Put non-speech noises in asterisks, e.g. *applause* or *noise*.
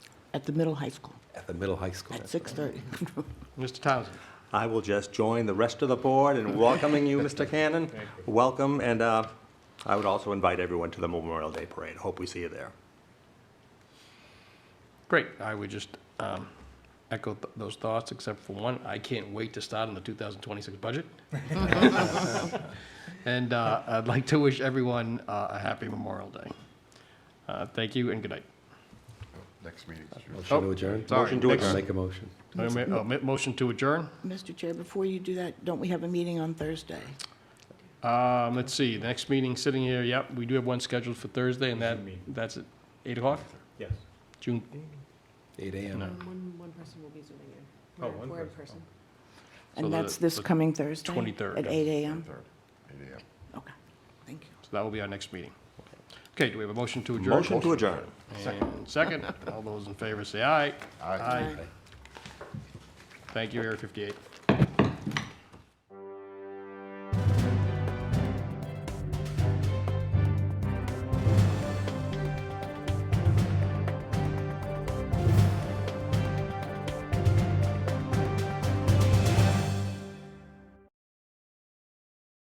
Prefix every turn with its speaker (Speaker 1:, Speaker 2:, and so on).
Speaker 1: at the middle high school
Speaker 2: at the middle high school.
Speaker 3: *laughs*
Speaker 1: at 6:30.
Speaker 4: Mr. Townsend.
Speaker 2: I will just join the rest of the board in welcoming *laughs* you, Mr. Cannon. Welcome, and uh, I would also invite everyone to the Memorial Day Parade. Hope we see you there.
Speaker 4: Great. I would just um, echo th- those thoughts, except for one. I can't wait to start on the 2026 budget. And uh, I'd like to wish everyone uh, a happy Memorial Day. Uh, Thank you and good night.
Speaker 5: Next meeting. Oh,
Speaker 6: Motion to adjourn?
Speaker 4: sorry.
Speaker 2: Motion to
Speaker 4: Next.
Speaker 2: adjourn.
Speaker 6: Make a motion.
Speaker 4: Uh, ma- uh, ma- Motion to adjourn.
Speaker 1: Mr. Chair, before you do that, don't we have a meeting on Thursday?
Speaker 4: Um, Let's see, the next meeting sitting here, yep, we do have one scheduled for Thursday, and that, that's at 8 o'clock?
Speaker 2: Yes.
Speaker 4: June,
Speaker 6: Eight AM.
Speaker 4: no.
Speaker 3: One, one person will be zooming in.
Speaker 2: Oh,
Speaker 3: We're-
Speaker 2: one
Speaker 3: We're in
Speaker 2: person.
Speaker 3: person.
Speaker 4: So
Speaker 1: And
Speaker 4: the-
Speaker 1: that's this
Speaker 4: the
Speaker 1: coming Thursday?
Speaker 4: 23rd,
Speaker 1: At
Speaker 4: yeah.
Speaker 1: 8 a.m.?
Speaker 5: Eight AM.
Speaker 1: Okay, thank you.
Speaker 4: So that will be our next meeting. Okay, do we have a motion to adjourn?
Speaker 2: Motion to adjourn.
Speaker 4: And second, all those in favor say aye.
Speaker 5: Aye.
Speaker 4: Thank you, Area 58.